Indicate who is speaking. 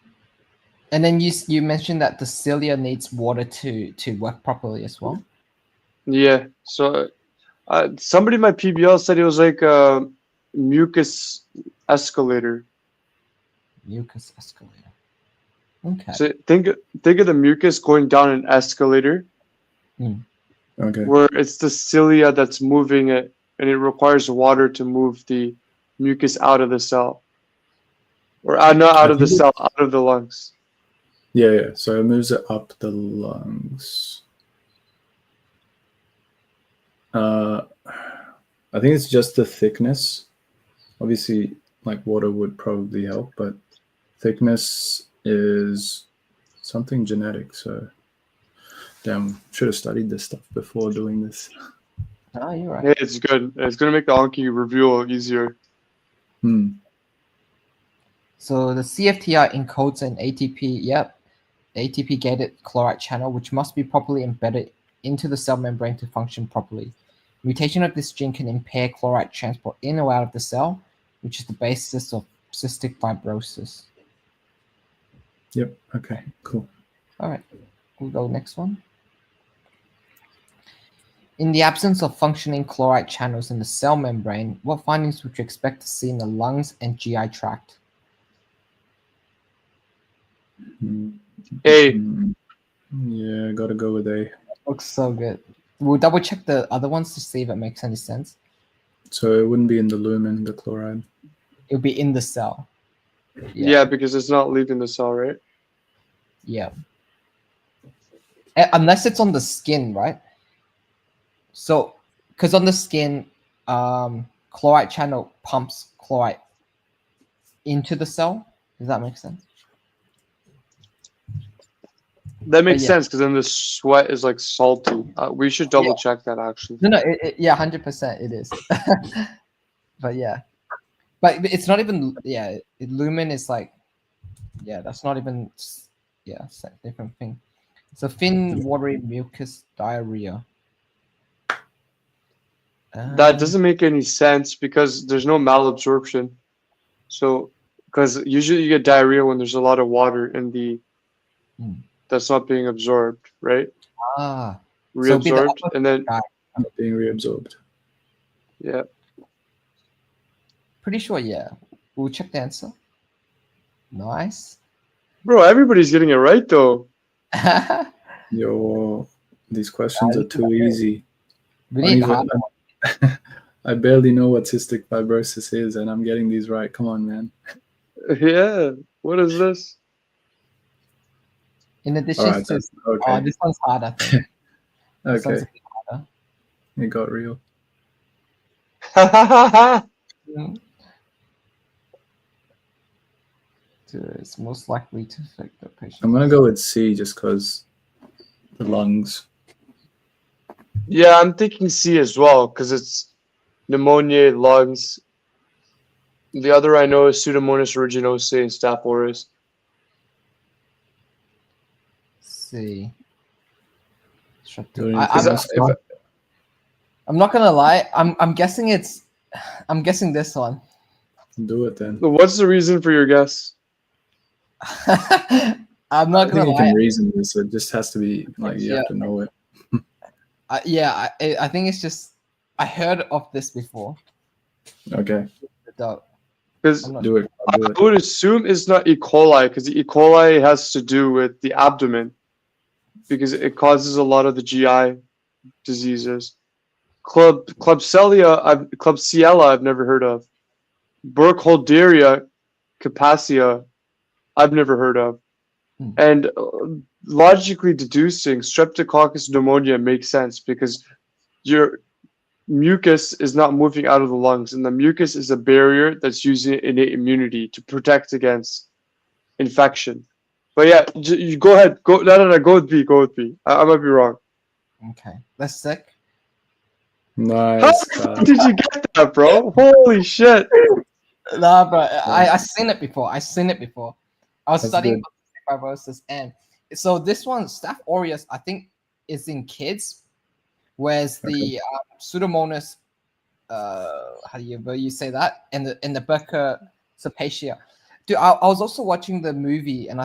Speaker 1: And then you s- you mentioned that the cilia needs water to to work properly as well.
Speaker 2: Yeah. So uh, somebody in my PBL said it was like a mucus escalator.
Speaker 1: Mucus escalator. Okay.
Speaker 2: So think think of the mucus going down an escalator
Speaker 3: Okay.
Speaker 2: where it's the cilia that's moving it and it requires water to move the mucus out of the cell. Or uh, not out of the cell, out of the lungs.
Speaker 3: Yeah, yeah. So it moves it up the lungs. Uh, I think it's just the thickness. Obviously, like water would probably help, but thickness is something genetic. So, damn, should have studied this stuff before doing this.
Speaker 1: oh, you're right.
Speaker 2: Hey, it's good. It's gonna make the Anki review easier.
Speaker 3: Hmm.
Speaker 1: So the CFTR encodes an ATP, yep, ATP gated chloride channel, which must be properly embedded into the cell membrane to function properly. Mutation of this gene can impair chloride transport in or out of the cell, which is the basis of cystic fibrosis.
Speaker 3: Yep. Okay. Cool.
Speaker 1: All right, we'll go next one. In the absence of functioning chloride channels in the cell membrane, what findings would you expect to see in the lungs and GI tract?
Speaker 3: Hmm.
Speaker 2: Hey,
Speaker 3: Hmm. Yeah, gotta go with A.
Speaker 1: Looks so good. We'll double check the other ones to see if it makes any sense.
Speaker 3: So it wouldn't be in the lumen, the chloride.
Speaker 1: It'll be in the cell.
Speaker 2: yeah. because it's not leaving the cell, right?
Speaker 1: Yeah. Uh, Unless it's on the skin, right? So, because on the skin, um, chloride channel pumps chloride into the cell. Does that make sense?
Speaker 2: That makes
Speaker 1: yeah.
Speaker 2: sense because then the sweat is like salty. Uh, we should double check that actually.
Speaker 1: No, no, it, it- yeah, hundred percent, it is. but yeah, but it's not even yeah. It, lumen is like, yeah, that's not even s- yeah, it's a different thing. It's a thin, watery mucus diarrhea.
Speaker 2: That
Speaker 1: Um,
Speaker 2: doesn't make any sense because there's no malabsorption. So, because usually you get diarrhea when there's a lot of water in the
Speaker 1: Hmm.
Speaker 2: that's not being absorbed, right?
Speaker 1: Ah, it'll be the
Speaker 2: Reabsorbed, and then
Speaker 3: Not being reabsorbed.
Speaker 2: yeah,
Speaker 1: pretty sure. Yeah, we'll check the answer. Nice.
Speaker 2: bro, everybody's getting it right though.
Speaker 1: we
Speaker 3: Yo, these questions
Speaker 1: Yeah,
Speaker 3: are too easy. I,
Speaker 1: need
Speaker 3: even-
Speaker 1: hard.
Speaker 3: I barely know what cystic fibrosis is, and I'm getting these right. Come on, man.
Speaker 2: yeah, what is this?
Speaker 1: In addition
Speaker 3: All right,
Speaker 1: to,
Speaker 3: that's, okay,
Speaker 1: oh, this one's hard. I think. This one's
Speaker 3: okay,
Speaker 1: a bit
Speaker 3: it got real.
Speaker 1: Mm. To- It's most likely to affect the patient.
Speaker 3: I'm gonna go with C just because the lungs.
Speaker 2: yeah, I'm thinking C as well because it's pneumonia, lungs. The other I know is Pseudomonas aeruginosa and Staph aureus.
Speaker 1: see. Shut
Speaker 3: Do
Speaker 1: the-
Speaker 3: you
Speaker 1: I,
Speaker 3: think
Speaker 1: I'm,
Speaker 3: that's fine?
Speaker 1: I'm not gonna lie. I'm I'm guessing it's. I'm guessing this one.
Speaker 3: Do it then.
Speaker 2: What's the reason for your guess?
Speaker 1: I'm
Speaker 3: I
Speaker 1: not
Speaker 3: think
Speaker 1: gonna
Speaker 3: you
Speaker 1: lie.
Speaker 3: can reason this. It just has to be like you have to know it.
Speaker 1: I, yeah, I- I, I think it's just. I heard of this before.
Speaker 3: Okay,
Speaker 1: The dog.
Speaker 2: Because
Speaker 1: I'm not,
Speaker 3: do it.
Speaker 2: I
Speaker 3: Do it.
Speaker 2: would assume it's not E. coli because E. coli has to do with the abdomen because it causes a lot of the GI diseases. Club Klebsiella, I've, Klebsiella, I've never heard of. Burkholderia, Capacia, I've never heard of.
Speaker 1: Hmm.
Speaker 2: And uh, logically deducing Streptococcus pneumonia makes sense because your mucus is not moving out of the lungs, and the mucus is a barrier that's using innate immunity to protect against infection. But yeah, j- you go ahead. Go no no no. Go with B. Go with B. I, I might be wrong.
Speaker 1: okay, that's sick.
Speaker 3: Nice.
Speaker 2: How
Speaker 3: Kyle.
Speaker 2: did you get that, bro? Holy shit!
Speaker 1: Nah, but I I seen it before. I seen it before. I was
Speaker 3: That's
Speaker 1: studying
Speaker 3: good.
Speaker 1: about cystic fibrosis, and so this one, staph aureus, I think, is in kids, whereas the um, pseudomonas, uh, how do you but you say that, and the and the Becker sapatia. Dude, I, I was also watching the movie, and I.